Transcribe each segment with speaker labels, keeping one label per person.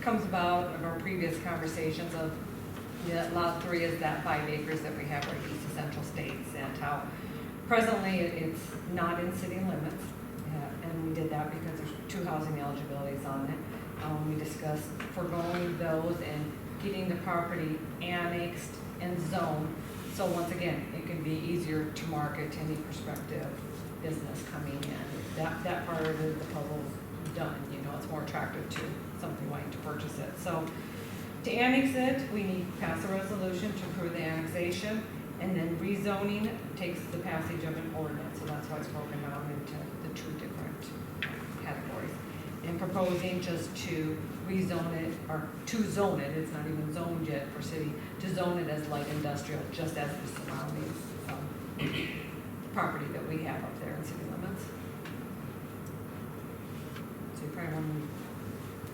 Speaker 1: comes about of our previous conversations of, yeah, lot three is that five acres that we have right east of Central States and how presently it- it's not in city limits. uh, And we did that because there's two housing eligibilities on it. Um, we discussed foregoing those and getting the property annexed and zoned. So once again, it can be easier to market to any prospective business coming in. That, that part of the puzzle's done, you know, it's more attractive to somebody wanting to purchase it. So to annex it, we need to pass a resolution to approve the annexation, and then rezoning takes the passage of an ordinance, so that's why it's broken out into the two different categories. And proposing just to rezone it, or to zone it, it's not even zoned yet for city, to zone it as light industrial, just as the surrounding, um, property that we have up there in city limits. So you probably want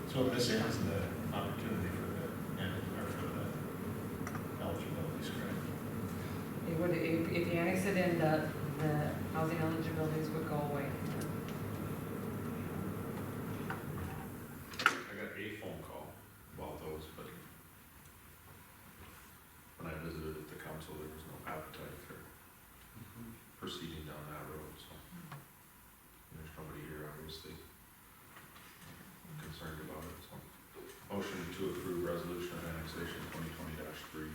Speaker 1: to
Speaker 2: So this ends the opportunity for the, and, or for the eligibility screen.
Speaker 1: It would, if, if you annex it in, the, the housing eligibilities would go away.
Speaker 3: I got a phone call about those, but when I visited at the council, there was no appetite for
Speaker 2: Mm-hmm.
Speaker 3: proceeding down that road, so. There's nobody here obviously concerned about it, so. Motion to approve resolution of annexation twenty twenty three.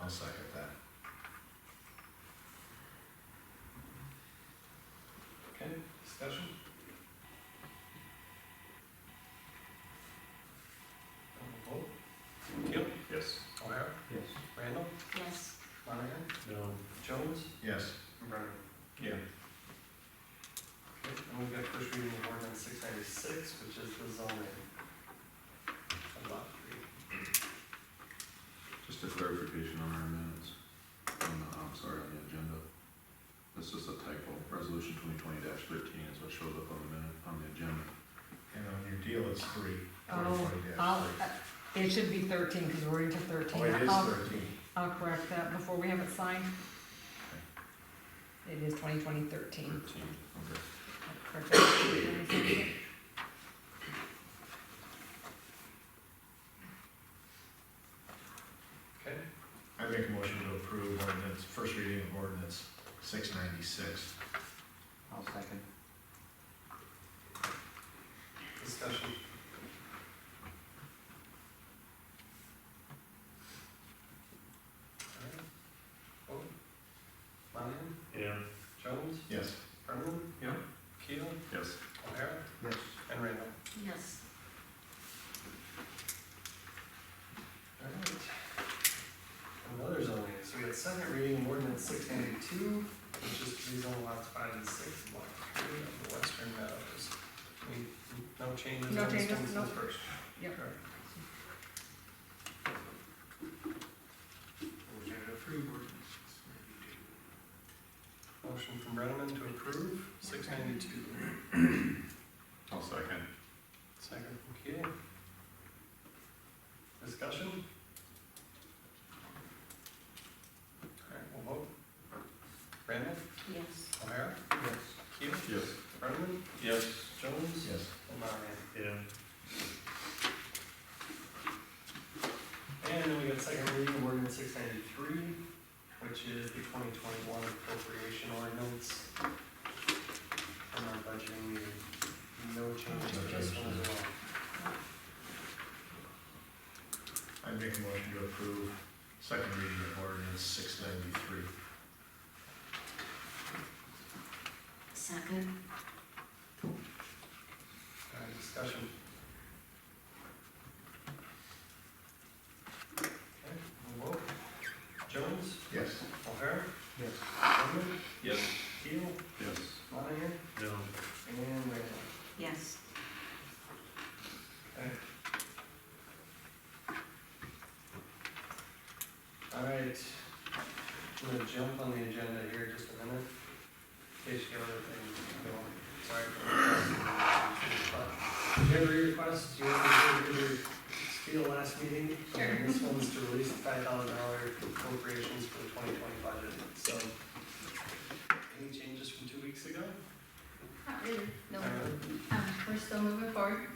Speaker 2: I'll second that. Okay, discussion? Vote,
Speaker 4: Keel,
Speaker 3: Yes.
Speaker 4: O'Hara,
Speaker 2: Yes.
Speaker 4: Randall,
Speaker 1: Yes.
Speaker 4: Monahan,
Speaker 2: No.
Speaker 4: Jones,
Speaker 2: Yes.
Speaker 4: and Brennan.
Speaker 2: Yeah.
Speaker 4: Okay, and we've got first reading of ordinance six ninety-six, which is the zoning. of Lot three.
Speaker 3: Just a clarification on our minutes, on the, I'm sorry, on the agenda. This is a typo, resolution twenty twenty thirteen is what shows up on the minute, on the agenda.
Speaker 2: And on your deal, it's three.
Speaker 1: Oh,
Speaker 2: 2020-3.
Speaker 1: I'll, it should be thirteen, because we're into thirteen.
Speaker 2: Oh, it is
Speaker 1: I'll-
Speaker 2: thirteen.
Speaker 1: I'll correct that before we have it signed. It is twenty twenty thirteen.
Speaker 3: Thirteen, okay.
Speaker 1: I'll correct that.
Speaker 4: Okay,
Speaker 2: I make a motion to approve ordinance, first reading of ordinance six ninety-six.
Speaker 5: I'll second.
Speaker 4: discussion. Alright. Vote. Monahan,
Speaker 2: Yeah.
Speaker 4: Jones,
Speaker 2: Yes.
Speaker 4: Brennan.
Speaker 3: Yeah.
Speaker 4: Keel,
Speaker 3: Yes.
Speaker 4: O'Hara,
Speaker 5: Yes.
Speaker 4: and Randall.
Speaker 1: Yes.
Speaker 4: Alright. Another zoning, so we had second reading of ordinance six ninety-two, which is rezone lots five and six, block three of the Western Meadows. We, no changes
Speaker 1: No
Speaker 4: on this
Speaker 1: changes,
Speaker 4: one
Speaker 1: no.
Speaker 4: since first.
Speaker 1: Yep.
Speaker 4: Correct.
Speaker 5: Motion to approve ordinance six ninety-two.
Speaker 4: Motion from Brenneman to approve, six ninety-two.
Speaker 3: I'll second.
Speaker 4: Second from Keel. Discussion? Alright, we'll vote. Randall,
Speaker 1: Yes.
Speaker 4: O'Hara,
Speaker 5: Yes.
Speaker 4: Keel,
Speaker 3: Yes.
Speaker 4: Brenneman,
Speaker 3: Yes.
Speaker 4: Jones,
Speaker 2: Yes.
Speaker 4: and Monahan.
Speaker 2: Yeah.
Speaker 4: And then we got second reading of ordinance six ninety-three, which is the twenty twenty-one appropriation ordinance. From our budgeting meeting, no changes to this one as well.
Speaker 2: I make a motion to approve second reading of ordinance six ninety-three.
Speaker 1: Second.
Speaker 4: All right, discussion. Okay, we'll vote. Jones,
Speaker 2: Yes.
Speaker 4: O'Hara,
Speaker 5: Yes.
Speaker 4: Brennan,
Speaker 3: Yes.
Speaker 4: Keel,
Speaker 3: Yes.
Speaker 4: Monahan,
Speaker 2: No.
Speaker 4: and Randall.
Speaker 1: Yes.
Speaker 4: Okay. All right, I'm gonna jump on the agenda here just a minute. In case you have other things going, sorry. for- Did you ever request, you want to do your spiel last meeting?
Speaker 1: Sure.
Speaker 4: And This one's to release the five thousand dollar appropriations for the twenty twenty budget, so. Any changes from two weeks ago?
Speaker 6: Not really, no.
Speaker 4: All right.
Speaker 6: Um, We're still moving forward.